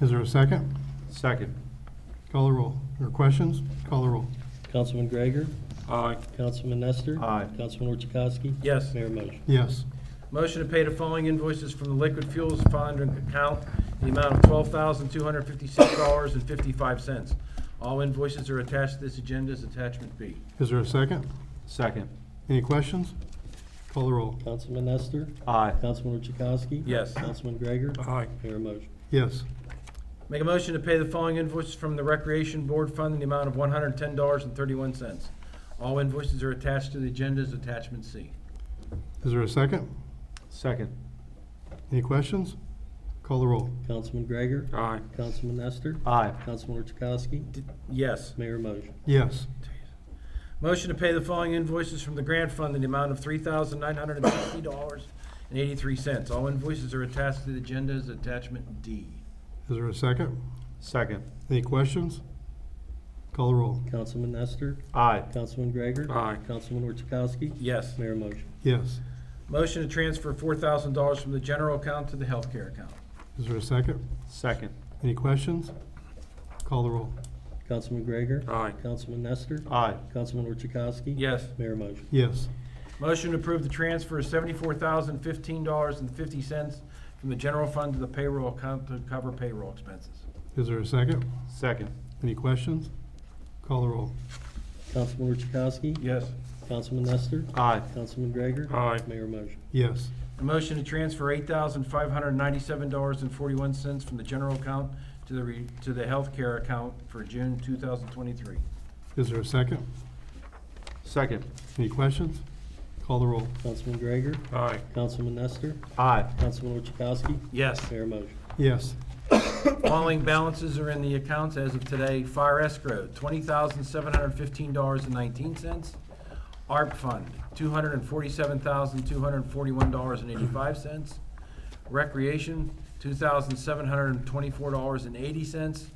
Is there a second? Second. Call the roll. Or questions? Call the roll. Councilman Gregor? Aye. Councilman Nestor? Aye. Councilman Orchakowski? Yes. Mayor motion. Yes. Motion to pay the following invoices from the Liquid Fuels Fund account, the amount of twelve thousand, two hundred fifty-six dollars and fifty-five cents. All invoices are attached to this agenda as attachment B. Is there a second? Second. Any questions? Call the roll. Councilman Nestor? Aye. Councilman Orchakowski? Yes. Councilman Gregor? Aye. Mayor motion. Yes. Make a motion to pay the following invoices from the Recreation Board Fund in the amount of one hundred ten dollars and thirty-one cents. All invoices are attached to the agenda as attachment C. Is there a second? Second. Any questions? Call the roll. Councilman Gregor? Aye. Councilman Nestor? Aye. Councilman Orchakowski? Yes. Mayor motion. Yes. Motion to pay the following invoices from the grant fund in the amount of three thousand nine hundred and sixty dollars and eighty-three cents. All invoices are attached to the agenda as attachment D. Is there a second? Second. Any questions? Call the roll. Councilman Nestor? Aye. Councilman Gregor? Aye. Councilman Orchakowski? Yes. Mayor motion. Yes. Motion to transfer four thousand dollars from the general account to the healthcare account. Is there a second? Second. Any questions? Call the roll. Councilman Gregor? Aye. Councilman Nestor? Aye. Councilman Orchakowski? Yes. Mayor motion. Yes. Motion to approve the transfer of seventy-four thousand fifteen dollars and fifty cents from the general fund to the payroll account to cover payroll expenses. Is there a second? Second. Any questions? Call the roll. Councilman Orchakowski? Yes. Councilman Nestor? Aye. Councilman Gregor? Aye. Mayor motion. Yes. A motion to transfer eight thousand five hundred ninety-seven dollars and forty-one cents from the general account to the re, to the healthcare account for June two thousand twenty-three. Is there a second? Second. Any questions? Call the roll. Councilman Gregor? Aye. Councilman Nestor? Aye. Councilman Orchakowski? Yes. Mayor motion. Yes. Following balances are in the accounts as of today. Fire escrow, twenty thousand seven hundred fifteen dollars and nineteen cents. ARP fund, two hundred and forty-seven thousand two hundred forty-one dollars and eighty-five cents. Recreation, two thousand seven hundred and twenty-four dollars and eighty cents.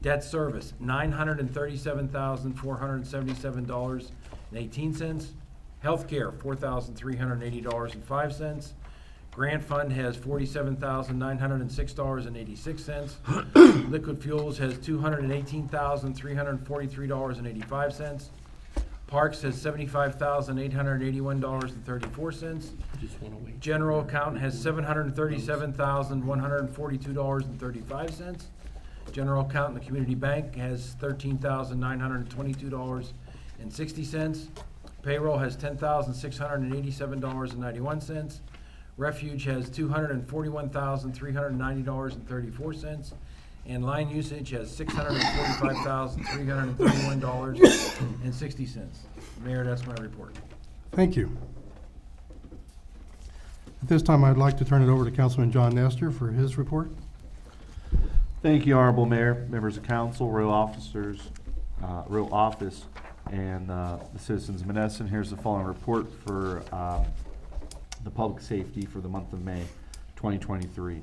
Debt service, nine hundred and thirty-seven thousand four hundred and seventy-seven dollars and eighteen cents. Healthcare, four thousand three hundred and eighty dollars and five cents. Grant fund has forty-seven thousand nine hundred and six dollars and eighty-six cents. Liquid fuels has two hundred and eighteen thousand three hundred and forty-three dollars and eighty-five cents. Parks has seventy-five thousand eight hundred and eighty-one dollars and thirty-four cents. Just want to wait. General account has seven hundred and thirty-seven thousand, one hundred and forty-two dollars and thirty-five cents. General account in the community bank has thirteen thousand, nine hundred and twenty-two dollars and sixty cents. Payroll has ten thousand, six hundred and eighty-seven dollars and ninety-one cents. Refuge has two hundred and forty-one thousand, three hundred and ninety dollars and thirty-four cents. And line usage has six hundred and forty-five thousand, three hundred and thirty-one dollars and sixty cents. Mayor, that's my report. Thank you. At this time, I'd like to turn it over to Councilman John Nestor for his report. Thank you, Honorable Mayor, members of council, royal officers, uh, royal office, and uh, the citizens of Menneson. Here's the following report for um, the public safety for the month of May 2023.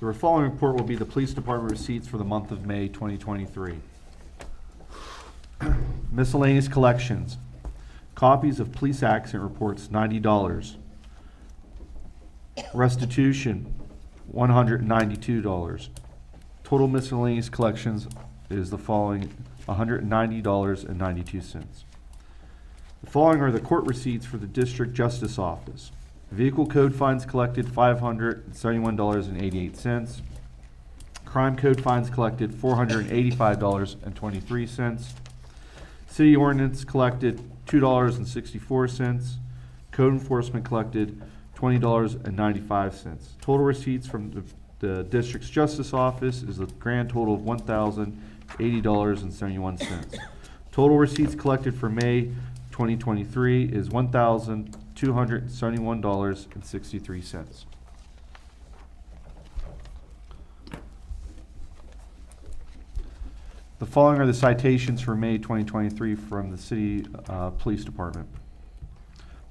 The following report will be the police department receipts for the month of May 2023. Miscellaneous collections. Copies of police accident reports, $90. Restitution, one hundred and ninety-two dollars. Total miscellaneous collections is the following, hundred and ninety dollars and ninety-two cents. The following are the court receipts for the District Justice Office. Vehicle code fines collected, five hundred and seventy-one dollars and eighty-eight cents. Crime code fines collected, four hundred and eighty-five dollars and twenty-three cents. City ordinance collected two dollars and sixty-four cents. Code enforcement collected twenty dollars and ninety-five cents. Total receipts from the, the district's justice office is a grand total of one thousand eighty dollars and seventy-one cents. Total receipts collected for May twenty twenty-three is one thousand two hundred and seventy-one dollars and sixty-three cents. The following are the citations for May 2023 from the City uh, Police Department.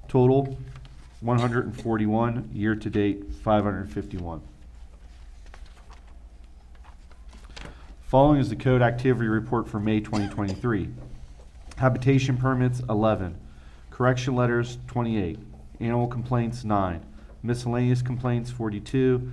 Total, 141, year-to-date, 551. Following is the code activity report for May 2023. Habitation permits, 11. Correction letters, 28. Animal complaints, 9. Miscellaneous complaints, 42.